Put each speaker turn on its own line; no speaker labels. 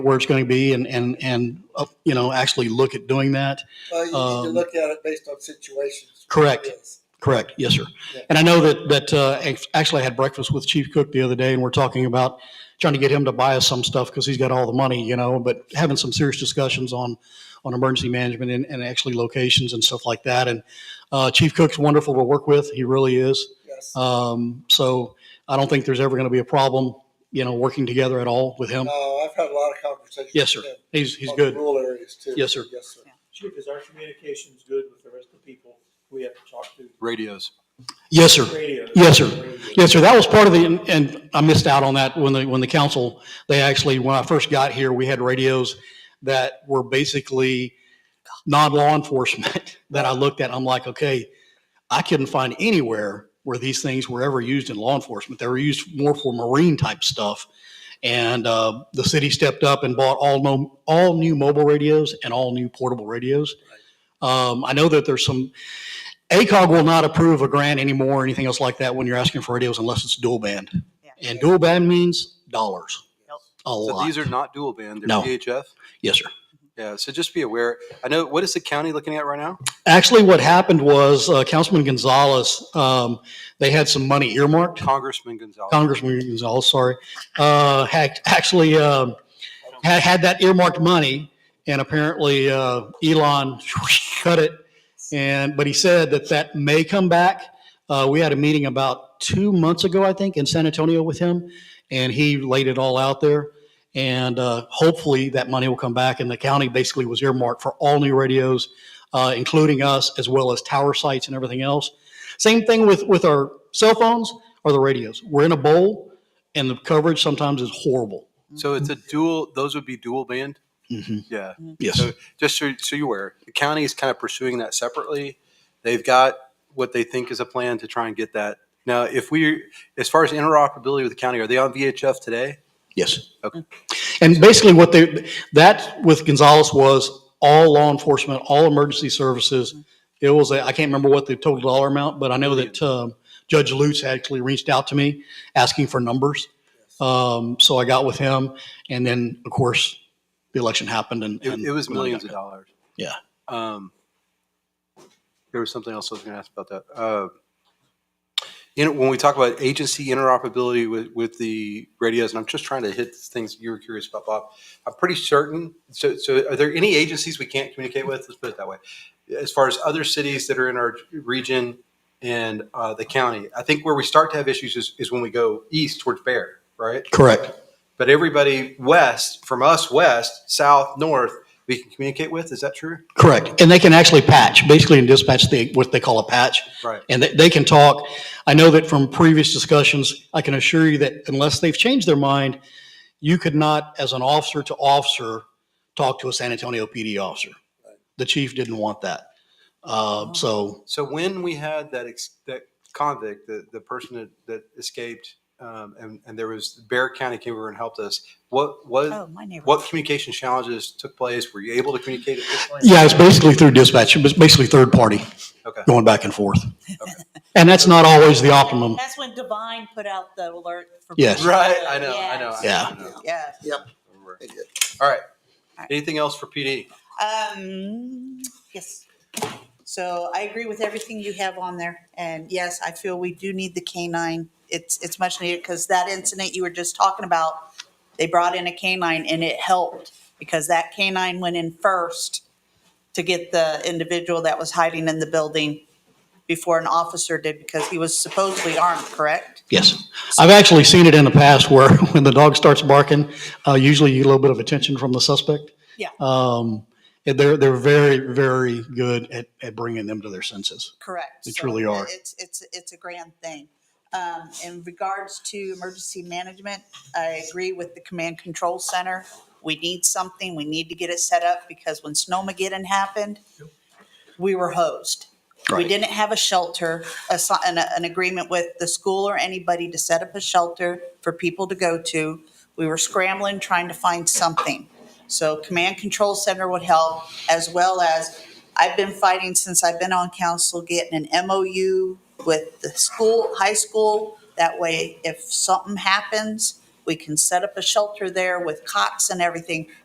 where it's going to be and, and, and, uh, you know, actually look at doing that.
Well, you need
Um,
to look at it based on situations.
Correct.
Yes.
Correct. Yes, sir.
Yeah.
And I know that, that, uh, ac- actually I had breakfast with Chief Cook the other day and we're talking about trying to get him to buy us some stuff because he's got all the money, you know, but having some serious discussions on, on emergency management and, and actually locations and stuff like that. And, uh, Chief Cook's wonderful to work with. He really is.
Yes.
Um, so I don't think there's ever going to be a problem, you know, working together at all with him.
No, Uh, I've had a lot of conversations.
Yes, sir.
with him
He's, he's
on the
good.
Rural areas too.
Yes, sir.
Yes, sir.
Chief, is our communications good with the rest of the people we have to talk to?
radios.
Yes, sir.
Radio.
Yes, sir.
Radio.
Yes, sir, that was part of the, and I missed out on that when the, when the council, they actually, when I first got here, we had radios that were basically non-law enforcement that I looked at, I'm like, okay, I couldn't find anywhere where these things were ever used in law enforcement. They were used more for marine type stuff. And uh, the city stepped up and bought all, mo- all new mobile radios and all new portable radios. Um, I know that there's some, ACOG will not approve a grant anymore or anything else like that when you're asking for radios unless it's dual band.
Yeah.
And dual band means dollars.
Yep.
A
So
lot.
these are not dual band,
No.
they're VHF.
Yes, sir.
Yeah, so just be aware. I know, what is the county looking at right now?
Actually, what happened was uh, Councilman Gonzalez, um, they had some money earmarked.
Congressman Gonzalez.
Congressman Gonzalez, sorry, uh, had actually um, had, had that earmarked money, and apparently uh, Elon cut it. And but he said that that may come back. Uh, we had a meeting about two months ago, I think, in San Antonio with him, and he laid it all out there. And uh, hopefully that money will come back. And the county basically was earmarked for all new radios, uh, including us, as well as tower sites and everything else. Same thing with with our cell phones or the radios. We're in a bowl, and the coverage sometimes is horrible.
So it's a dual, those would be dual band? Yeah.
Yes.
So just so, so you're aware, the county is kind of pursuing that separately. They've got what they think is a plan to try and get that. Now, if we, as far as interoperability with the county, are they on VHF today?
Yes.
Okay.
And basically, what they that with Gonzalez was all law enforcement, all emergency services. It was a, I can't remember what the total dollar amount, but I know that um, Judge Lutz actually reached out to me asking for numbers. Um, so I got with him, and then of course the election happened, and,
It,
and
it was
we only
millions
got-
of dollars.
Yeah.
Um, there was something else I was going to ask about that. Uh, you know, when we talk about agency interoperability with, with the radios, and I'm just trying to hit things you were curious about, Bob. I'm pretty certain. So, so are there any agencies we can't communicate with? Let's put it that way. As far as other cities that are in our region and uh, the county, I think where we start to have issues is, is when we go east towards Bear, right?
Correct.
But everybody west, from us west, south, north, we can communicate with. Is that true?
Correct. And they can actually patch, basically in dispatch, they, what they call a patch.
Right.
And they, they can talk. I know that from previous discussions, I can assure you that unless they've changed their mind, you could not, as an officer to officer, talk to a San Antonio PD officer. The chief didn't want that. Uh, so,
So when we had that ex- that convict, the the person that, that escaped, um, and and there was Bear County came over and helped us. What what
Oh, my neighbor.
what communication challenges took place? Were you able to communicate at this point?
yeah, it's basically through dispatch, it's basically third party.
Okay.
Going back and forth. And that's not always the optimum.
That's when Divine put out the alert for.
Yes.
Right. I know. I know. I
Yeah.
know, I know.
Yes.
They did.
All right.
right.
Anything else for PD?
Um, yes. So I agree with everything you have on there. And yes, I feel we do need the canine. It's, it's much needed because that incident you were just talking about, they brought in a canine and it helped because that canine went in first to get the individual that was hiding in the building before an officer did because he was supposedly armed, correct?
Yes. I've actually seen it in the past where when the dog starts barking, uh, usually you get a little bit of attention from the suspect.
Yeah.
Um, and they're, they're very, very good at, at bringing them to their senses.
Correct.
They
So
truly are.
It's, it's, it's a grand thing. Um, in regards to emergency management, I agree with the command control center. We need something, we need to get it set up because when Snowmageddon happened, we were hosed. We
Right.
didn't have a shelter, a, si- an, an agreement with the school or anybody to set up a shelter for people to go to. We were scrambling, trying to find something. So command control center would help as well as, I've been fighting since I've been on council, getting an MOU with the school, high school. That way, if something happens, We can set up a shelter there with cots and everything